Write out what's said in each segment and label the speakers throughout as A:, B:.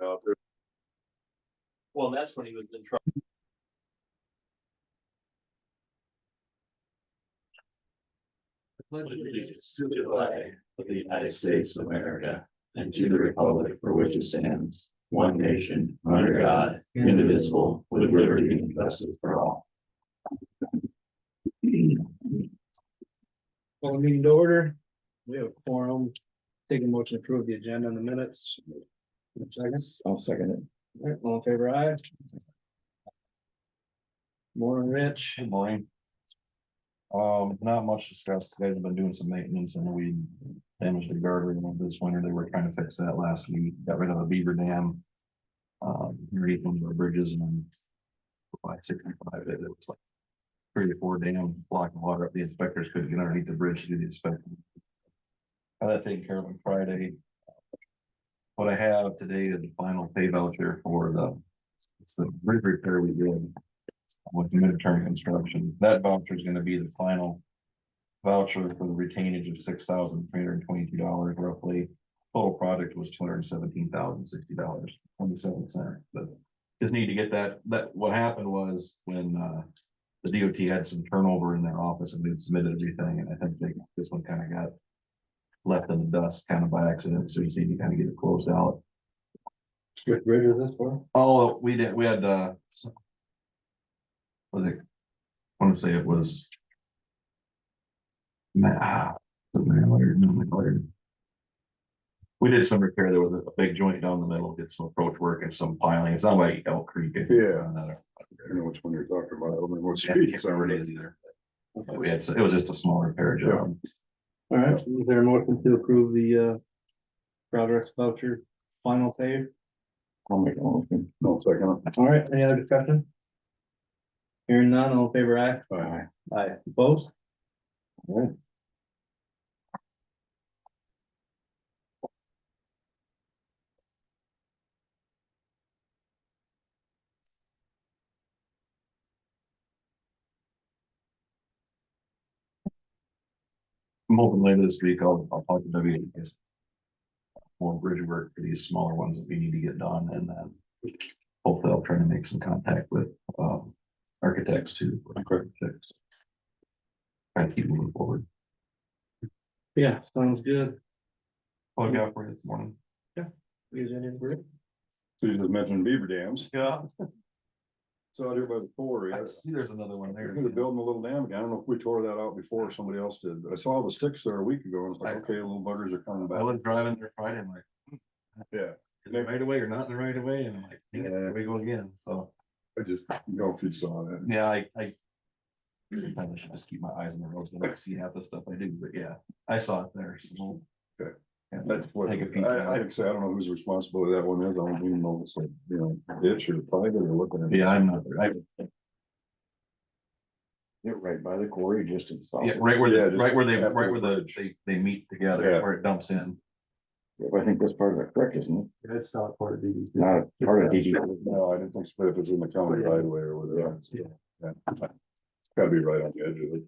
A: know, if there's
B: Well, that's when he was in trouble.
C: the flag of the United States of America and to the republic for which it stands, one nation, under God, indivisible, with liberty and justice for all.
D: Well, meeting to order. We have a quorum. Take a motion to approve the agenda in the minutes. Seconds.
C: I'll second it.
D: All right, all in favor, aye. Morning, Rich.
E: Good morning. Um, not much discussed. Guys have been doing some maintenance and we damaged the guardrail this winter. They were trying to fix that last week. Got rid of a beaver dam. Um, underneath one of our bridges and then by sixty-five, it was like three or four dam blocking water up. The inspectors couldn't get underneath the bridge to do the inspection. Got that taken care of on Friday. What I have today is the final pay voucher for the, it's the bridge repair we did with midterm construction. That voucher is gonna be the final voucher for the retainage of six thousand three hundred and twenty-two dollars roughly. Total project was two hundred and seventeen thousand sixty dollars, twenty-seven cents, but just need to get that, that, what happened was when, uh, the DOT had some turnover in their office and they'd submitted everything, and I think they, this one kind of got left in the dust kind of by accident, so you just need to kind of get it closed out.
D: Which bridge is this for?
E: Oh, we did, we had, uh, some- was it, I wanna say it was. Ma- ah, the Mallard, no, Mallard. We did some repair, there was a a big joint down the middle, did some approach work and some piling, it's not like Elk Creek. I think,
A: Yeah.
E: on that,
A: I don't know which one you're talking about, I don't know what
E: I
A: street
E: can't
A: it's
E: remember
A: on.
E: what it is either. But we had, so- it was just a small repair job,
D: All right, is there a motion to approve the uh progress voucher final pay?
C: I'll make a motion.
A: No, uh, second.
D: All right, any other discussion? Hearing none, all in favor, aye.
A: Aye.
D: Aye. Opposed?
E: I'm hoping later this week, I'll, I'll talk to W. More bridge work for these smaller ones that we need to get done and then. Hopefully I'll try to make some contact with, um, architects too. architects. Try to keep moving forward.
D: Yeah, sounds good.
E: Well, I got for you this morning.
D: Is any group?
A: So you just mentioned beaver dams,
E: Yeah.
A: it's out here by the four, yeah.
E: I see there's another one
A: They're
E: there.
A: gonna build a little dam, again. I don't know if we tore that out before or somebody else did, but I saw the sticks there a week ago, and it's like,
E: I-
A: okay, little buggers are coming
E: I
A: back.
E: was driving there Friday, I'm like, hmm.
A: Yeah,
E: is it right away or not in the right away? And I'm like, dang it, here we go again, so,
A: I just, you know, if you saw that.
E: yeah, I, I. Sometimes I should just keep my eyes on the roads, I don't see half the stuff I do, but yeah, I saw it there, so.
A: Good.
E: Yeah,
A: That's what,
E: Take a peek.
A: I, I think, so. I don't know whose responsibility that one is, I don't even know if it's like, you know, ditch or private or looking at.
E: Yeah, I'm not, I,
C: Get right by the quarry, just to the south.
E: yeah, right where,
A: Yeah,
E: the
A: just
E: right where they,
A: after
E: right
A: the
E: where the,
A: bridge.
E: they, they meet together,
A: Yeah.
E: where it dumps in.
C: I think that's part of the creek, isn't
B: That's not part of the.
C: it? Not part of DD.
A: No, I didn't think, so, but if it's in the county right away or whatever. it's-
B: Yeah.
A: Yeah. It's Gotta be right on the edge of it.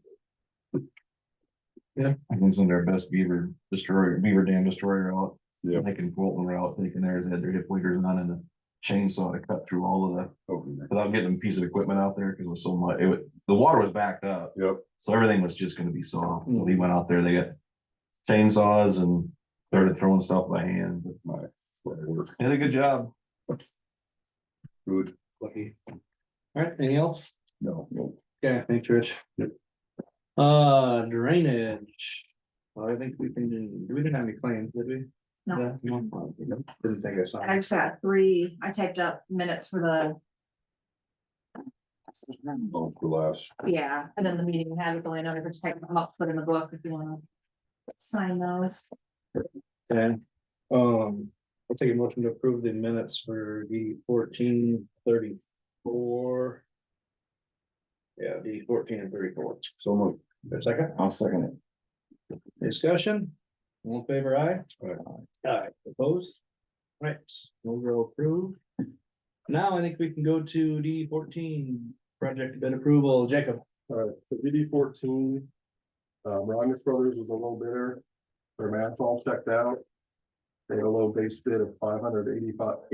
E: I think some of their best beaver destroyer, beaver dam destroyer out.
A: Yeah.
E: They can bolt and out, taking theirs, had their hip waders on and a chainsaw to cut through all of the,
A: Okay.
E: without getting a piece of equipment out there, because it was so much, it was, the water was backed up.
A: Yep,
E: So everything was just gonna be soft, so he went out there, they got chainsaws and started throwing stuff by hand, but
A: my, my work,
E: did a good job.
A: good,
D: Lucky. All right, anything else?
A: no, no.
D: Yeah, thanks, Rich. Uh, drainage. Well, I think we can, do. we didn't have any claims, did we?
F: No.
D: No. Didn't think I saw.
F: And I just got three, I typed up minutes for the.
A: Oh, for last,
F: Yeah, and then the meeting we had with the landowner, just type them up, put in the book if you wanna. Sign those.
D: Okay. um, I'll take a motion to approve the minutes for the fourteen thirty-four. Yeah, the fourteen and thirty-four.
A: so much.
D: There a second,
C: I'll second it.
D: discussion? All in favor, aye? Aye, opposed? Right, overall approved. Now I think we can go to D fourteen, project bid approval, Jacob.
G: Uh, the DD fourteen. Uh, Rogers Brothers was a little bidder. Their math all checked out. They had a low base bid of five hundred eighty-five,